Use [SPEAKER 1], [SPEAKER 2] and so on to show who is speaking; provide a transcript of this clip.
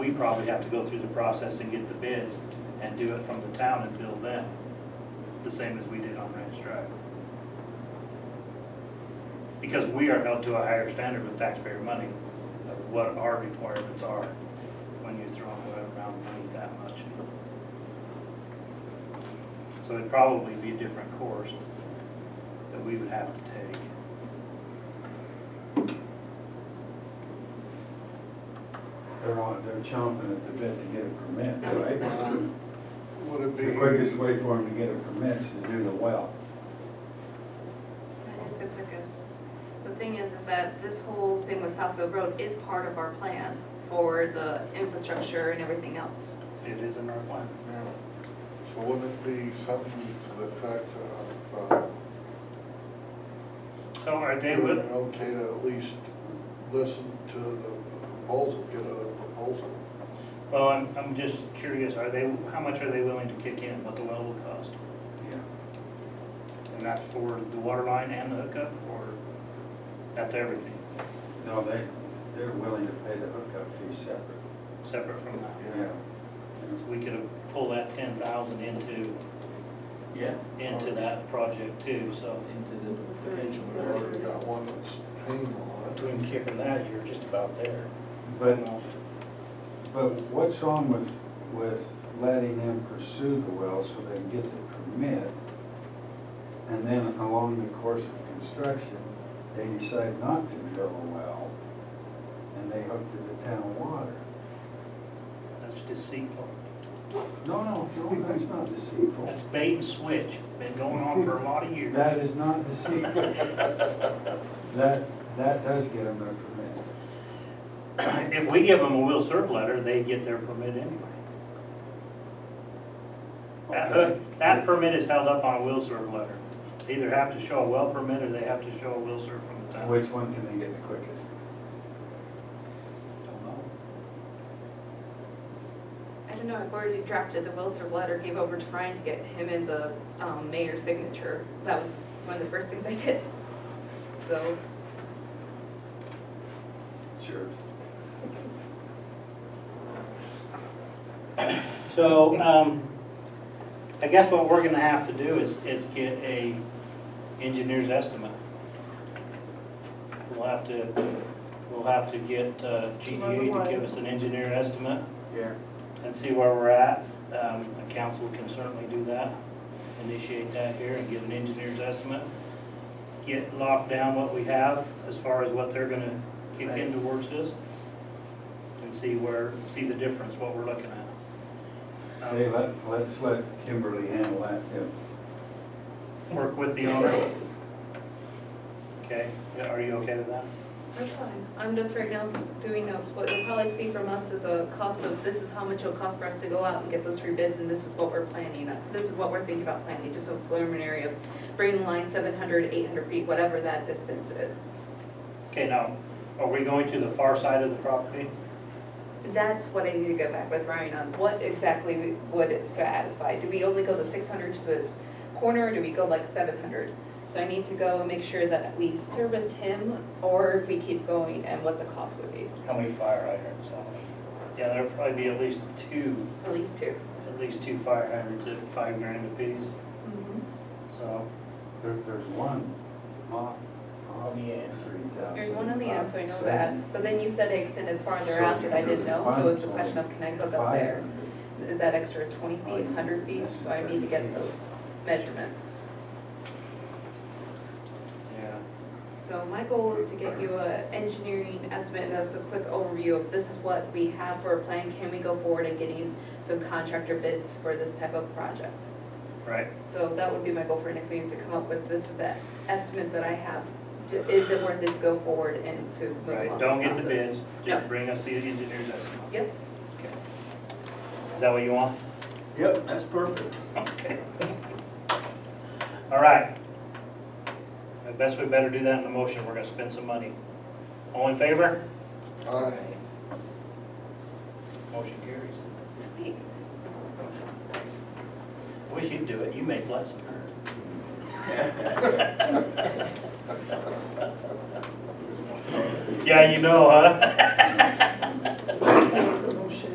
[SPEAKER 1] We probably have to go through the process and get the bids and do it from the town and bill them, the same as we did on Ranch Drive. Because we are held to a higher standard with taxpayer money of what our requirements are when you're throwing around money that much. So it'd probably be a different course that we would have to take.
[SPEAKER 2] They're on, they're chomping at the bit to get a permit, right?
[SPEAKER 3] Would it be?
[SPEAKER 2] The quickest way for them to get a permit is to do the well.
[SPEAKER 4] That is the quickest. The thing is, is that this whole thing with Southfield Road is part of our plan for the infrastructure and everything else.
[SPEAKER 1] It is in our plan.
[SPEAKER 3] Yeah. So wouldn't it be something to the effect of, uh,
[SPEAKER 1] So are they
[SPEAKER 3] doing
[SPEAKER 1] with,
[SPEAKER 3] it okay to at least listen to the proposal, get a proposal?
[SPEAKER 1] well, I'm, I'm just curious, are they, how much are they willing to kick in, what the well will cost? And that's for the water line and the hookup, or that's everything,
[SPEAKER 2] No, they, they're willing to pay the hookup fee separate.
[SPEAKER 1] separate from that?
[SPEAKER 2] Yeah.
[SPEAKER 1] We could pull that ten thousand into,
[SPEAKER 5] Yeah,
[SPEAKER 1] into that project too, so.
[SPEAKER 5] into the potential.
[SPEAKER 3] We already got one that's paying on it.
[SPEAKER 1] Between kicking that, you're just about there.
[SPEAKER 2] But, but what's wrong with, with letting them pursue the well so they can get the permit? And then along the course of construction, they decide not to drill a well and they hook to the town water.
[SPEAKER 1] That's deceitful.
[SPEAKER 2] No, no, no, that's not deceitful.
[SPEAKER 1] That's bait and switch, been going on for a lot of years.
[SPEAKER 2] That is not deceitful. That, that does get them their permit.
[SPEAKER 1] If we give them a will serve letter, they get their permit anyway. That hook, that permit is held up on a will serve letter. They Either have to show a well permit, or they have to show a will serve from the town.
[SPEAKER 2] Which one can they get the quickest?
[SPEAKER 1] Don't know.
[SPEAKER 4] I don't know, I've already drafted the Will Serve letter, gave over to Brian to get him in the um, mayor's signature. That was one of the first things I did. So,
[SPEAKER 2] Sure.
[SPEAKER 1] So, um, I guess what we're gonna have to do is, is get a engineer's estimate. We'll have to, we'll have to get uh, GDA to give us an engineer estimate
[SPEAKER 2] Yeah.
[SPEAKER 1] and see where we're at. Um, the council can certainly do that, initiate that here and get an engineer's estimate. Get locked down what we have as far as what they're gonna kick in towards this. And see where, see the difference, what we're looking at. Um,
[SPEAKER 2] Hey, let, let's let Kimberly handle that too.
[SPEAKER 1] Work with the owner. Okay, yeah, are you okay with that?
[SPEAKER 4] I'm fine. I'm just right now doing notes. What you'll probably see from us is a cost of, this is how much it'll cost for us to go out and get those three bids, and this is what we're planning. uh, This is what we're thinking about planning, just a preliminary of bringing the line 700, 800 feet, whatever that distance is.
[SPEAKER 1] Okay, now, are we going to the far side of the property?
[SPEAKER 4] That's what I need to go back with Ryan on, what exactly we- would it satisfy? Do we only go the 600 to this corner, or do we go like 700? So I need to go and make sure that we service him, or if we keep going, and what the cost would be,
[SPEAKER 1] How many fire hydrants? Yeah, there'll probably be at least two,
[SPEAKER 4] at least two.
[SPEAKER 1] at least two fire hydrants at five grand apiece, so.
[SPEAKER 2] There, there's one off, off
[SPEAKER 5] On the end.
[SPEAKER 2] three thousand.
[SPEAKER 4] There's one on the end, so I know that, but then you said they extended farther out that I didn't know, so it's a question of can I hook up there? Is that extra twenty feet, hundred feet, so I need to get those measurements.
[SPEAKER 1] Yeah.
[SPEAKER 4] So my goal is to get you a engineering estimate, and that's a quick overview of this is what we have for a plan, can we go forward in getting some contractor bids for this type of project?
[SPEAKER 1] Right,
[SPEAKER 4] So that would be my goal for next meeting, is to come up with, this is the estimate that I have, is it worth it to go forward and to move
[SPEAKER 1] right,
[SPEAKER 4] along
[SPEAKER 1] don't get the
[SPEAKER 4] this process?
[SPEAKER 1] bids,
[SPEAKER 4] Yep.
[SPEAKER 1] just bring us the engineer's estimate.
[SPEAKER 4] Yep,
[SPEAKER 1] Is that what you want?
[SPEAKER 5] Yep, that's perfect.
[SPEAKER 1] Okay. All right. I guess we better do that in the motion, we're gonna spend some money. All in favor?
[SPEAKER 3] Aye.
[SPEAKER 1] Motion carries.
[SPEAKER 4] sweet.
[SPEAKER 1] Wish you'd do it, you make less than her. Yeah, you know, huh?